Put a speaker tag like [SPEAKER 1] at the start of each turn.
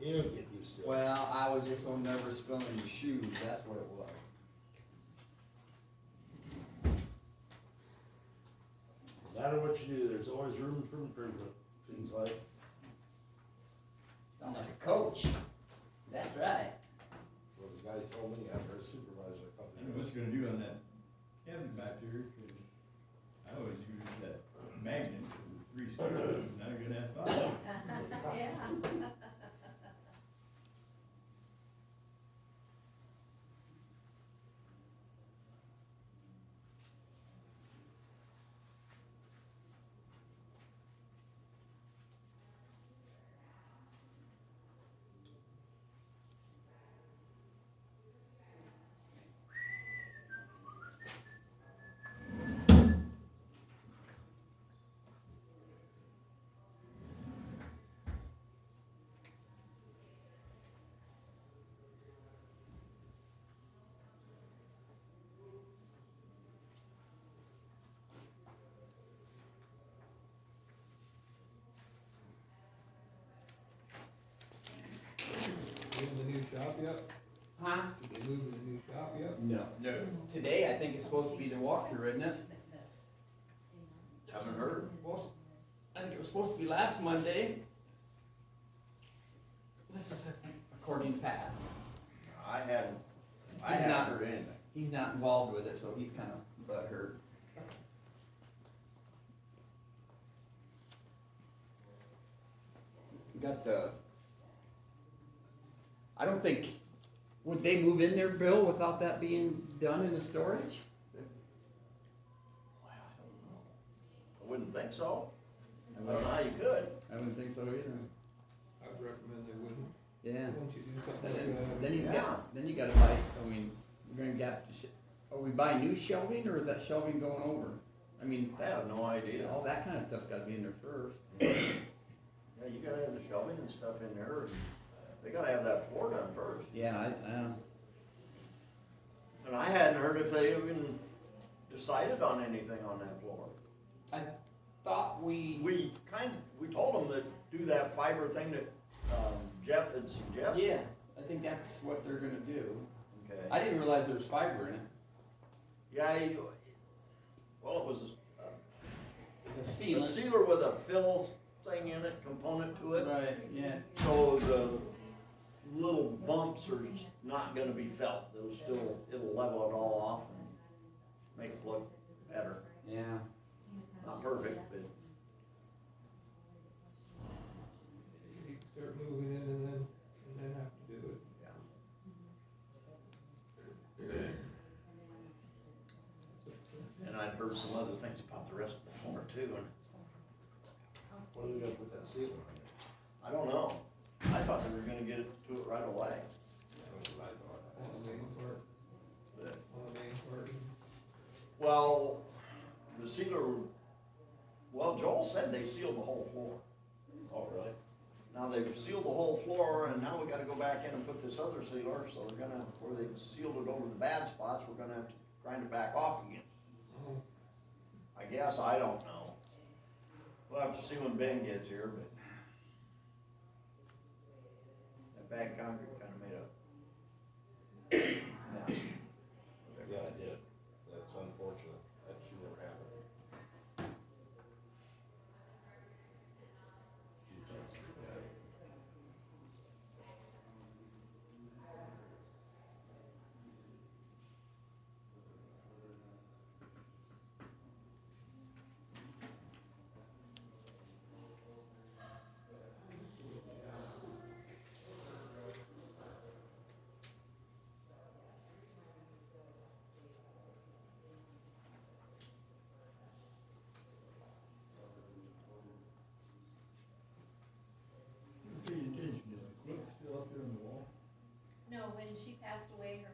[SPEAKER 1] You'll get used to it.
[SPEAKER 2] Well, I was just on never spilling your shoes, that's what it was.
[SPEAKER 1] No matter what you do, there's always room for improvement, seems like.
[SPEAKER 2] Sound like a coach. That's right.
[SPEAKER 1] Well, the guy told me after a supervisor a couple
[SPEAKER 3] I don't know what
[SPEAKER 1] years.
[SPEAKER 3] you're gonna do on that cabin back there, 'cause I always use that magnet for three screws, now you're gonna have five.
[SPEAKER 4] Yeah.
[SPEAKER 5] Moving the new shop yet?
[SPEAKER 2] Huh?
[SPEAKER 5] Did they move the new shop yet?
[SPEAKER 1] No.
[SPEAKER 3] No,
[SPEAKER 2] Today, I think it's supposed to be the walkthrough, isn't it?
[SPEAKER 3] haven't heard.
[SPEAKER 2] Well, I think it was supposed to be last Monday. This is according to Pat.
[SPEAKER 3] I haven't, I
[SPEAKER 2] He's not-
[SPEAKER 3] haven't heard anything.
[SPEAKER 2] He's not involved with it, so he's kind of butthurt. We Got the. I don't think, would they move in there, Bill, without that being done in the storage?
[SPEAKER 3] Well, I don't know. I wouldn't think so. I don't know how you could.
[SPEAKER 2] I wouldn't think so either.
[SPEAKER 5] I'd recommend they wouldn't.
[SPEAKER 2] Yeah.
[SPEAKER 5] Won't you do something
[SPEAKER 2] Then,
[SPEAKER 5] like that?
[SPEAKER 2] then you
[SPEAKER 3] Yeah.
[SPEAKER 2] got, then you gotta buy, I mean, we're gonna get, are we buying new shelving or is that shelving going over? I mean,
[SPEAKER 3] I
[SPEAKER 2] that's,
[SPEAKER 3] have no idea.
[SPEAKER 2] all that kind of stuff's gotta be in there first.
[SPEAKER 3] Yeah, you gotta have the shelving and stuff in there. They gotta have that floor done first.
[SPEAKER 2] Yeah, I, I don't.
[SPEAKER 3] And I hadn't heard if they even decided on anything on that floor.
[SPEAKER 2] I thought we.
[SPEAKER 3] We kind, we told them that do that fiber thing that um, Jeff had suggested.
[SPEAKER 2] Yeah, I think that's what they're gonna do. I
[SPEAKER 3] Okay.
[SPEAKER 2] didn't realize there was fiber in it.
[SPEAKER 3] Yeah, you, well, it was a-
[SPEAKER 2] It's a
[SPEAKER 3] a
[SPEAKER 2] sealant.
[SPEAKER 3] sealer with a fill thing in it, component to it.
[SPEAKER 2] Right, yeah.
[SPEAKER 3] So the little bumps are just not gonna be felt. They'll still, it'll level it all off and make it look better.
[SPEAKER 2] Yeah.
[SPEAKER 3] Not perfect, but
[SPEAKER 5] You start moving in and then, and then have to do it.
[SPEAKER 3] yeah. And I'd heard some other things about the rest of the floor too, and
[SPEAKER 1] What are they gonna put that ceiling on there?
[SPEAKER 3] I don't know. I thought they were gonna get it to it right away,
[SPEAKER 1] That's what I thought.
[SPEAKER 5] On the main part,
[SPEAKER 3] but,
[SPEAKER 5] on the main part.
[SPEAKER 3] well, the sealer, well, Joel said they sealed the whole floor.
[SPEAKER 1] Oh, really?
[SPEAKER 3] Now they've sealed the whole floor and now we gotta go back in and put this other sealer, so they're gonna, where they sealed it over the bad spots, we're gonna have to grind it back off again.
[SPEAKER 5] Oh,
[SPEAKER 3] I guess, I don't know. We'll have to see when Ben gets here, but. That bad concrete kinda made a. mess.
[SPEAKER 1] Yeah, I did. That's unfortunate. That should never happen.
[SPEAKER 3] Pay attention, is the
[SPEAKER 4] No, when she passed away,
[SPEAKER 1] Oh,